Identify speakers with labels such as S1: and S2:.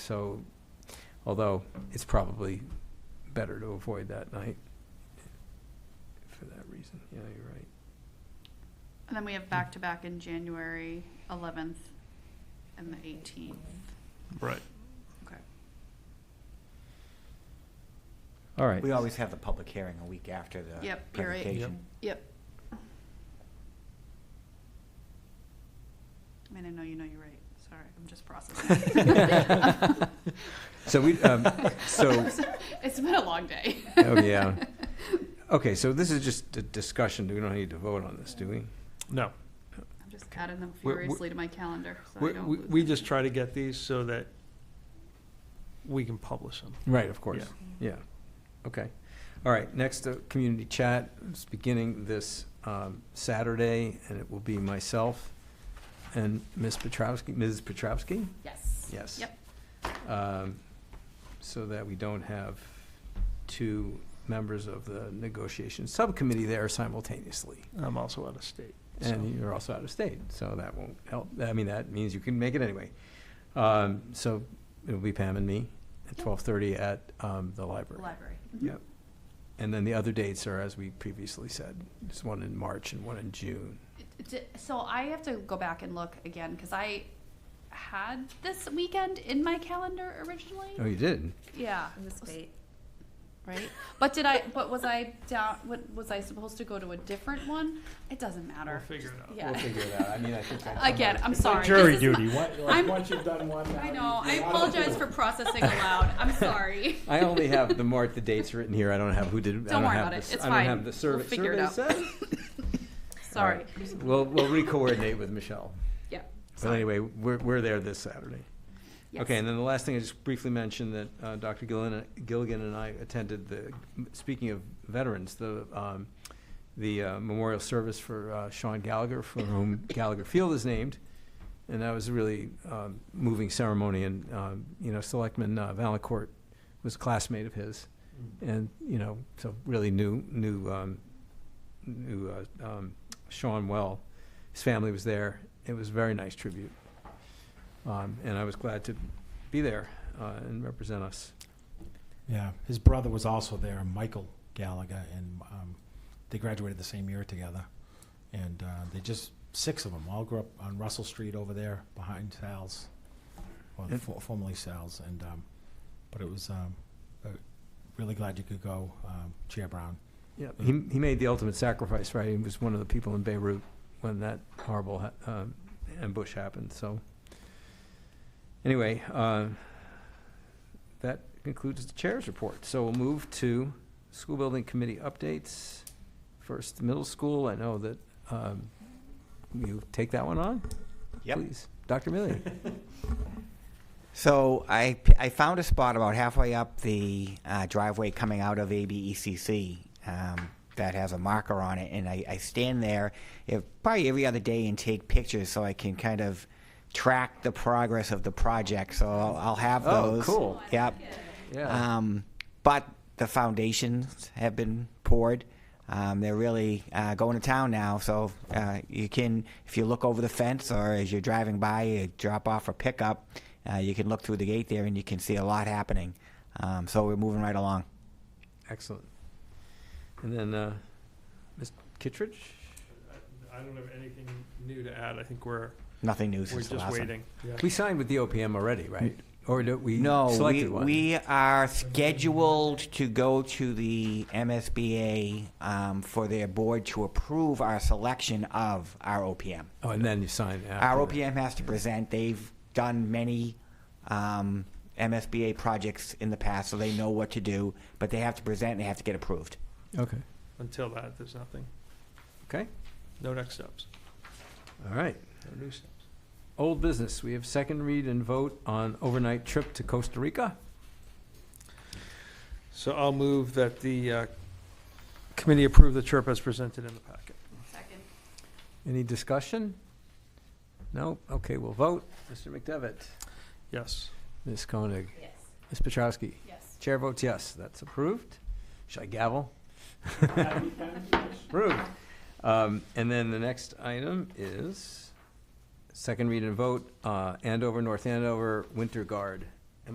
S1: so, although it's probably better to avoid that night for that reason. Yeah, you're right.
S2: And then we have back-to-back in January 11th and the 18th.
S3: Right.
S2: Okay.
S1: All right.
S4: We always have the public hearing a week after the
S2: Yep, you're right.
S4: presentation.
S2: Yep. I mean, I know you know you're right. Sorry, I'm just processing.
S1: So we, um, so,
S2: It's been a long day.
S1: oh, yeah. Okay, so this is just a discussion. We don't need to vote on this, do we?
S3: No,
S2: I'm just adding them
S3: We're- we're-
S2: furiously to my calendar, so I
S3: we,
S2: don't
S3: we-
S2: lose
S3: we
S2: them.
S3: just try to get these so that we can publish them.
S1: Right, of course. Yeah. Okay. All right, next, uh, community chat is beginning this um, Saturday, and it will be myself and Ms. Petrowski, Ms. Petrowski?
S2: Yes.
S1: Yes.
S2: Yep.
S1: um, so that we don't have two members of the negotiation subcommittee there simultaneously.
S3: I'm also out of state.
S1: And
S3: so-
S1: you're also out of state, so that won't help. I mean, that means you can make it anyway. Um, So it'll be Pam and me at
S2: Yep.
S1: 12:30 at um, the library. Mm-hmm.
S2: Library. Mhm.
S1: Yep. And then the other dates are, as we previously said, there's one in March and one in June.
S2: D- So I have to go back and look again, because I had this weekend in my calendar originally.
S1: Oh, you did?
S2: Yeah.
S5: It was fate.
S2: Right? But did I, but was I down, what, was I supposed to go to a different one? It doesn't
S3: We'll
S2: matter.
S3: figure it out.
S2: Yeah.
S1: it out. I mean, I think
S2: Again, I'm sorry.
S6: Jury
S2: This is
S6: duty,
S2: my-
S6: What-
S2: I'm-
S6: like, once you've done one. now
S2: I
S6: you-
S2: know, I
S6: you're out of
S2: apologize
S6: it.
S2: for processing aloud. I'm sorry.
S1: I only have the mark, the dates written here. I don't have who did. I
S2: Don't worry
S1: have
S2: about
S1: the
S2: it.
S1: s-
S2: It's
S1: I
S2: fine.
S1: don't have the
S2: We'll
S1: survey.
S2: figure it out.
S1: survey said?
S2: Sorry.
S1: All right. We'll, we'll re-coordinate with Michelle.
S2: Yeah.
S1: But anyway, we're, we're there this Saturday.
S2: Yes.
S1: Okay, and then the last thing I just briefly mentioned that uh, Dr. Gilligan, Gilligan and I attended the, speaking of veterans, the, um, the uh, memorial service for uh, Sean Gallagher, for whom Gallagher Field is named. And that was a really um, moving ceremony and, um, you know, Selectman uh, Valancourt was a classmate of his. And, you know, so really knew, knew, um, knew uh, um, Sean well. His family was there. It was a very nice tribute. Um, and I was glad to be there uh, and represent us.
S6: Yeah, his brother was also there, Michael Gallagher, and um, they graduated the same year together. And uh, they just, six of them, all grew up on Russell Street over there behind Sal's, or
S1: And-
S6: for- formerly Sal's. And, um, but it was, um, uh, really glad you could go, um, Chair Brown.
S1: Yeah, he, he made the ultimate sacrifice, right? He was one of the people in Beirut when that horrible ha- um, ambush happened. So, anyway, uh, that concludes the chair's report. So we'll move to school building committee updates. First, middle school. I know that um, you take that one on,
S4: Yep.
S1: please, Dr. Milley.
S4: So I, I found a spot about halfway up the uh, driveway coming out of ABECC um, that has a marker on it, and I, I stand there if, probably every other day and take pictures so I can kind of track the progress of the project. So I'll, I'll have
S1: Oh,
S4: those.
S1: cool.
S4: Yep.
S1: yeah.
S4: Um, but the foundations have been poured. Um, they're really uh, going to town now. So uh, you can, if you look over the fence or as you're driving by, you drop off or pick up, uh, you can look through the gate there and you can see a lot happening. Um, so we're moving right along.
S1: Excellent. And then, uh, Ms. Kittredge?
S3: I don't have anything new to add. I think we're,
S4: Nothing new
S3: we're
S4: since the
S3: just
S4: last one.
S3: waiting.
S1: We signed with the OPM already, right? Or do we
S4: No, we,
S1: selected one?
S4: we are scheduled to go to the MSBA um, for their board to approve our selection of our OPM.
S1: Oh, and then you signed after.
S4: Our
S1: that.
S4: OPM has to present, they've done many um, MSBA projects in the past, so they know what to do, but they have to present and they have to get approved.
S1: Okay,
S3: Until that, there's nothing.
S1: okay,
S3: No next steps.
S1: all right.
S3: No new steps.
S1: Old business, we have second read and vote on overnight trip to Costa Rica.
S3: So I'll move that the uh, committee approve the chirp as presented in the packet.
S2: Second.
S1: Any discussion? No? Okay, we'll vote. Mr. McDevitt?
S3: Yes.
S1: Ms. Koenig?
S2: Yes.
S1: Ms. Petrowski?
S2: Yes.
S1: Chair votes yes, that's approved. Should I gavel? Approved. Um, And then the next item is second read and vote, uh, Andover, North Andover, Winter Guard